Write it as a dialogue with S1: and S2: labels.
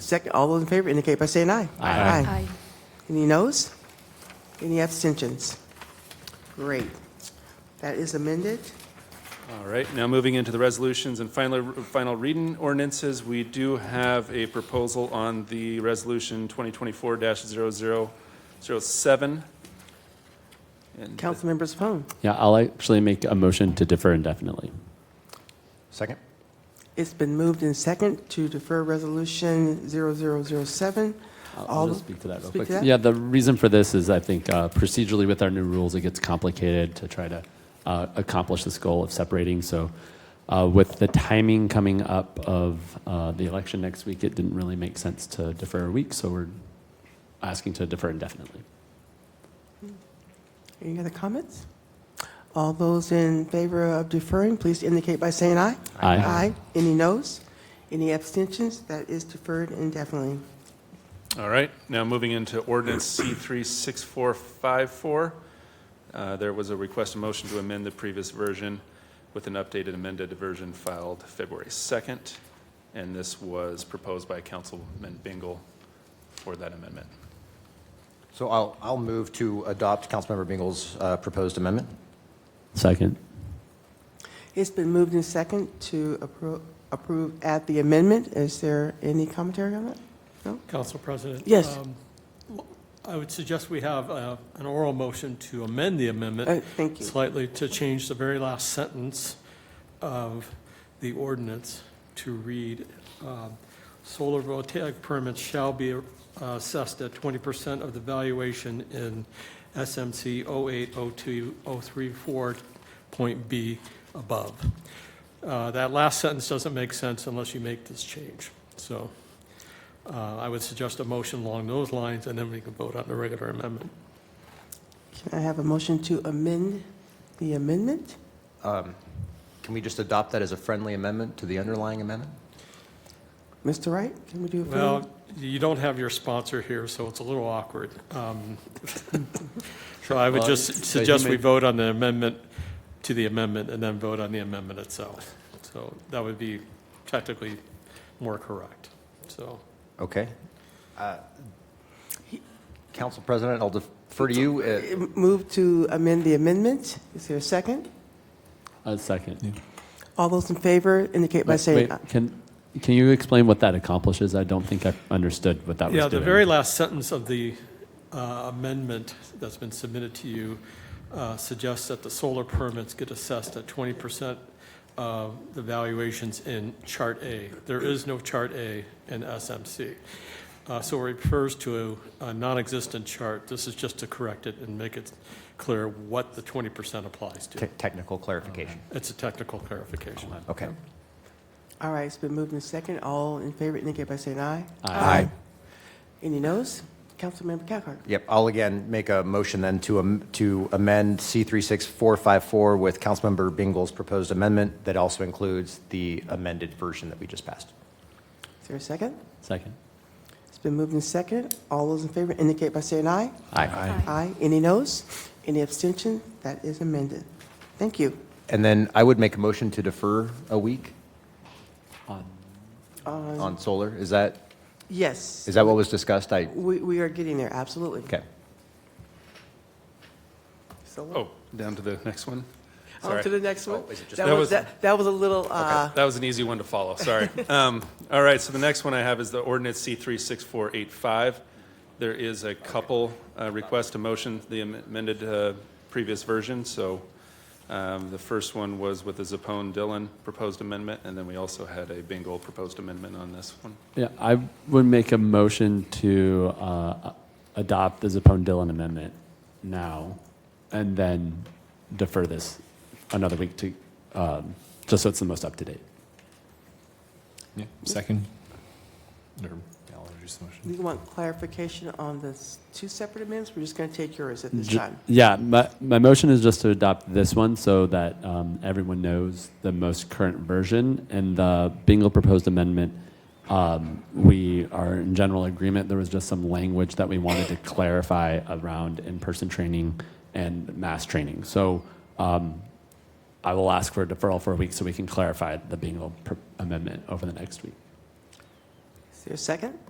S1: Second, all those in favor indicate by saying aye.
S2: Aye.
S3: Aye.
S1: Any noes? Any abstentions? Great. That is amended.
S2: All right, now moving into the resolutions and final, final reading ordinances, we do have a proposal on the resolution 2024-0007. And
S1: Councilmember Sapone,
S3: Yeah, I'll actually make a motion to defer indefinitely.
S4: Second?
S1: it's been moved in second to defer Resolution 0007.
S3: I'll-
S1: All
S3: I'll just
S1: of-
S3: speak to that real
S1: speak
S3: quick.
S1: to that?
S3: Yeah, the reason for this is I think uh, procedurally with our new rules, it gets complicated to try to uh, accomplish this goal of separating. So uh, with the timing coming up of uh, the election next week, it didn't really make sense to defer a week, so we're asking to defer indefinitely.
S1: Any other comments? All those in favor of deferring, please indicate by saying aye.
S3: Aye.
S1: Aye. Any noes? Any abstentions? That is deferred indefinitely.
S2: All right, now moving into ordinance C three six four five four. Uh, There was a request, a motion to amend the previous version with an updated amended version filed February second. And this was proposed by Councilman Bingle for that amendment.
S4: So I'll, I'll move to adopt Councilmember Bingle's uh, proposed amendment.
S3: Second.
S1: It's been moved in second to appro- approve at the amendment. Is there any commentary on that?
S5: Council President?
S1: Yes.
S5: um, I would suggest we have uh, an oral motion to amend the
S1: Uh,
S5: amendment
S1: Thank you.
S5: slightly to change the very last sentence of the ordinance to read, um, "Solar voltaic permits shall be uh, assessed at 20% of the valuation in SMC 0802034.b above." Uh, That last sentence doesn't make sense unless you make this change. So uh, I would suggest a motion along those lines, and then we can vote on the regular amendment.
S1: Can I have a motion to amend the amendment?
S4: Can we just adopt that as a friendly amendment to the underlying amendment?
S1: Mr. Wright, can we do a friendly?
S5: Well, you don't have your sponsor here, so it's a little awkward. Um, So I would just
S3: so he
S5: suggest we
S3: made-
S5: vote on the amendment to the amendment, and then vote on the amendment itself. So that would be technically more correct, so.
S4: Okay. Uh, Council President, I'll defer to you. Uh,
S1: Move to amend the amendment. Is there a second?
S3: Uh, Second.
S1: All those in favor indicate by
S3: Wait,
S1: saying
S3: wait,
S1: aye.
S3: Can, can you explain what that accomplishes? I don't think I understood what that was
S5: Yeah,
S3: doing.
S5: the very last sentence of the uh, amendment that's been submitted to you uh, suggests that the solar permits get assessed at 20% of the valuations in Chart A. There is no Chart A in SMC. Uh, So it refers to a a non-existent chart. This is just to correct it and make it clear what the 20% applies
S4: te-
S5: to.
S4: Technical clarification.
S5: It's a technical clarification.
S4: Okay.
S1: All right, it's been moved in second. All in favor indicate by saying aye.
S4: Aye.
S1: Any noes? Councilmember Cathcart?
S4: Yep, I'll again make a motion then to, am- to amend C 36454 with Councilmember Bingle's proposed amendment that also includes the amended version that we just passed.
S1: Is there a second?
S3: Second.
S1: It's been moved in second. All those in favor indicate by saying aye.
S4: Aye.
S1: Aye. Any noes? Any abstention? That is amended. Thank you.
S4: And then I would make a motion to defer a week
S3: On.
S1: Uh,
S4: on solar. Is that,
S1: Yes,
S4: is that what was discussed? I,
S1: we we are getting there, absolutely.
S4: okay.
S1: So
S2: Oh, down to the next one?
S1: On
S2: Sorry.
S1: to the next one.
S4: Oh, is it just-
S1: That
S2: That
S1: was,
S2: was-
S1: that that was a little, uh,
S2: That was an easy one to follow, sorry. Um, All right, so the next one I have is the ordinance C three six four eight five. There is a couple uh, requests to motion the amended uh, previous version, so um, the first one was with the Zapone Dillon proposed amendment, and then we also had a Bingle proposed amendment on this one.
S3: Yeah, I would make a motion to uh, adopt the Zepone-Dillon amendment now, and then defer this another week to, um, just so it's the most up to date.
S6: Yeah, second. Or I'll introduce the motion.
S1: we want clarification on the s- two separate amendments. We're just going to take yours at this
S3: Ju-
S1: time.
S3: Yeah, my, my motion is just to adopt this one so that um, everyone knows the most current version. And the Bingle proposed amendment, um, we are in general agreement. There was just some language that we wanted to clarify around in-person training and mass training. So um, I will ask for a deferral for a week so we can clarify the Bingle pr- amendment over the next week.
S1: Is there a second?